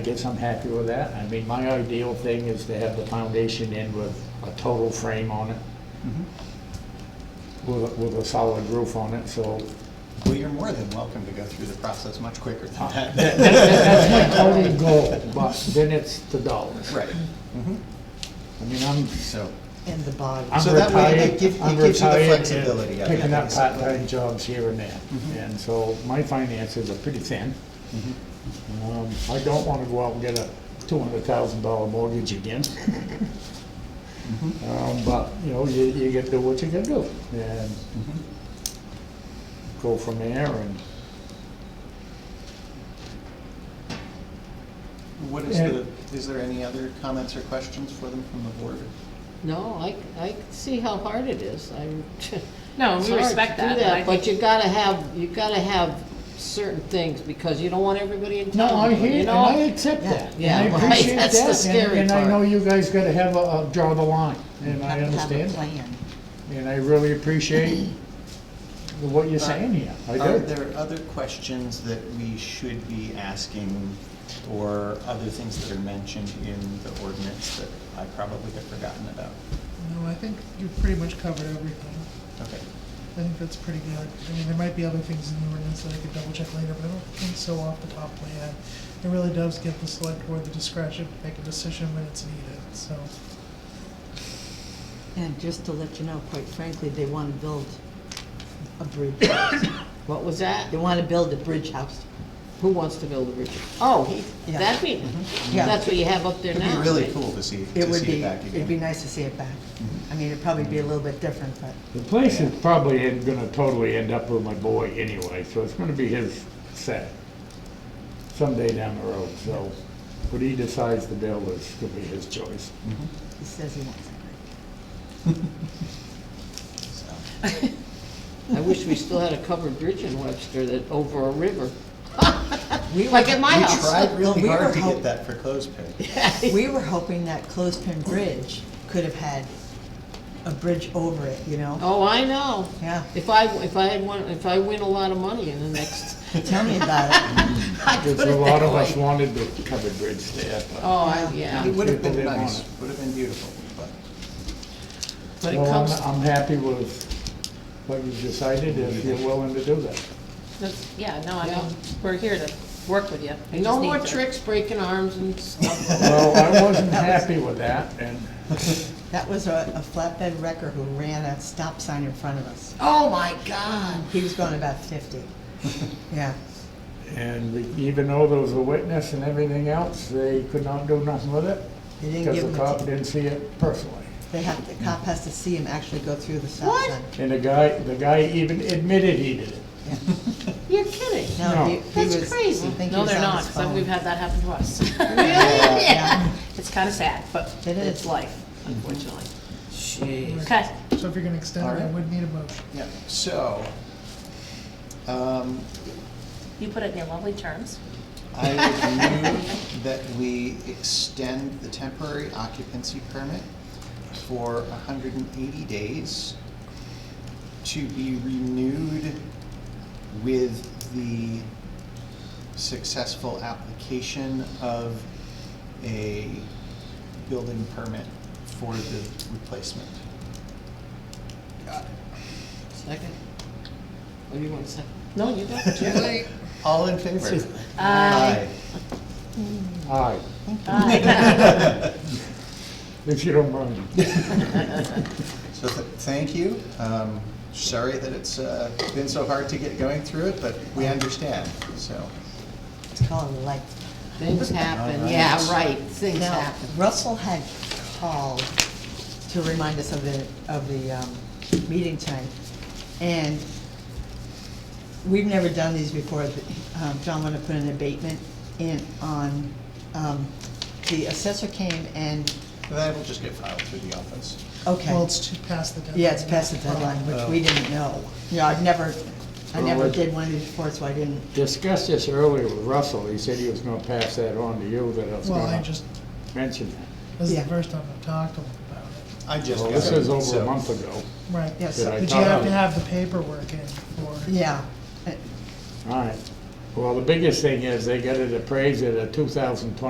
I guess I'm happy with that. I mean, my ideal thing is to have the foundation in with a total frame on it, with, with a solid roof on it, so. Well, you're more than welcome to go through the process much quicker than That- that- that. That's my total goal, but then it's the dollars. Right, I mean, I'm, so, And the bottom. I'm So that way it retired- give- it I'm gives you the retired and flexibility of it, Picking up basically. part-time jobs here and there, and so my finances are pretty thin. Um, I don't wanna go out and get a two hundred thousand dollar mortgage again. Um, but, you know, you, you gotta do what you gotta do, and go from there, and what is Yeah. the, is there any other comments or questions for them from the board? No, I, I see how hard it is. I'm. No, it's we hard to respect do that, but I But think, you gotta have, you gotta have certain things because you don't want everybody in No, town. I hear, you and know? I accept that, and Yeah, I yeah, right, appreciate that, that's the and, scary and I part. know you guys gotta have a, a- draw the line, and I understand. And I really appreciate the- what you're saying here, I Are do. there other questions that we should be asking or other things that are mentioned in the ordinance that I probably have forgotten about? No, I think you've pretty much covered everything. Okay, I think that's pretty good. I mean, there might be other things in the ordinance that I could double check later, but I don't think so off the top of my head. It really does give the select board the discretion to make a decision when it's needed, so. And just to let you know, quite frankly, they want to build a bridge. What was that? They want to build a bridge house. Who wants to build a bridge? Oh, he- Yeah. Mm-hmm. that be, Yeah. that's what you have up there it'd now. be really right? cool to see, It to would see it be, back it'd be again. Mm-hmm. nice to see it back. I mean, it'd probably be a little bit different, but The place is probably en- gonna totally end up with my boy anyway, so it's gonna be his set someday down the road, so what he decides to build is gonna be his choice. he says he wants it. So, I wish we still had a covered bridge in Webster that, over a river. Like at my We house. tried really We were hard to get hoping- that for clothespin. We were hoping that Clothespin Bridge could have had a bridge over it, you know? Oh, I know. Yeah. If I, if I had one, if I win a lot of money in the next, Tell me about it. Because a lot of us wanted the covered bridge there, but. oh, I- yeah. It would have been People didn't nice, want would have been beautiful, but. But it Well, I'm- comes, I'm happy with what you decided, if you're willing to do that. that's- yeah, no, I Yeah. mean, we're here to work with you. We no just need more to- tricks, breaking arms and stuff. Well, I wasn't happy with that, and That was a a flatbed wrecker who ran a stop sign in front of us. Oh, my God. He was going about fifty. Yeah. And we- even though there was a witness and everything else, they could not do nothing with it They didn't because give the him, a cop ticket. didn't see it personally. they have, the cop has to see him actually go through the stop What? sign. And the guy, the guy even admitted he did it. You're kidding. No. No, he- he That's was- crazy. I think he No, was they're on not, his 'cause I've- phone. we've had that happen to us. Really? Yeah. It's kind of sad, but It is. it's life, unfortunately. Jeez. Okay, So if you're gonna extend it, I Alright. would need a motion. Yeah, so, um, you put it in your lovely terms. I would move that we extend the temporary occupancy permit for hundred and eighty days to be renewed with the successful application of a building permit for the replacement. Second. What do you want to say? No, you don't. All in favor? Aye. Aye, Bye. if you don't mind. So th- thank you. Um, Sorry that it's uh, been so hard to get going through it, but we understand, so. It's called life. Things happen, yeah, right, things Now, happen. Russell had called to remind us of the, of the um, meeting time. And we've never done these before. but, um, John wanted to put an abatement in on, um, the assessor came and, That will just get filed through the office. okay. Well, it's to pass the deadline. Yeah, it's past the deadline, which we didn't know. Yeah, I've never, I never did one of these before, so I didn't. Discussed this earlier with Russell, he said he was gonna pass that on to you, that I was Well, I gonna just, mention that. this is Yeah. the first time I've talked to him about it. I just. Well, got this it, is over so- a month ago. Right. Yeah, Did so- I But you talk- have to have the paperwork in for. Yeah, Uh, All right. Well, the biggest thing is they got it appraised at a two thousand twenty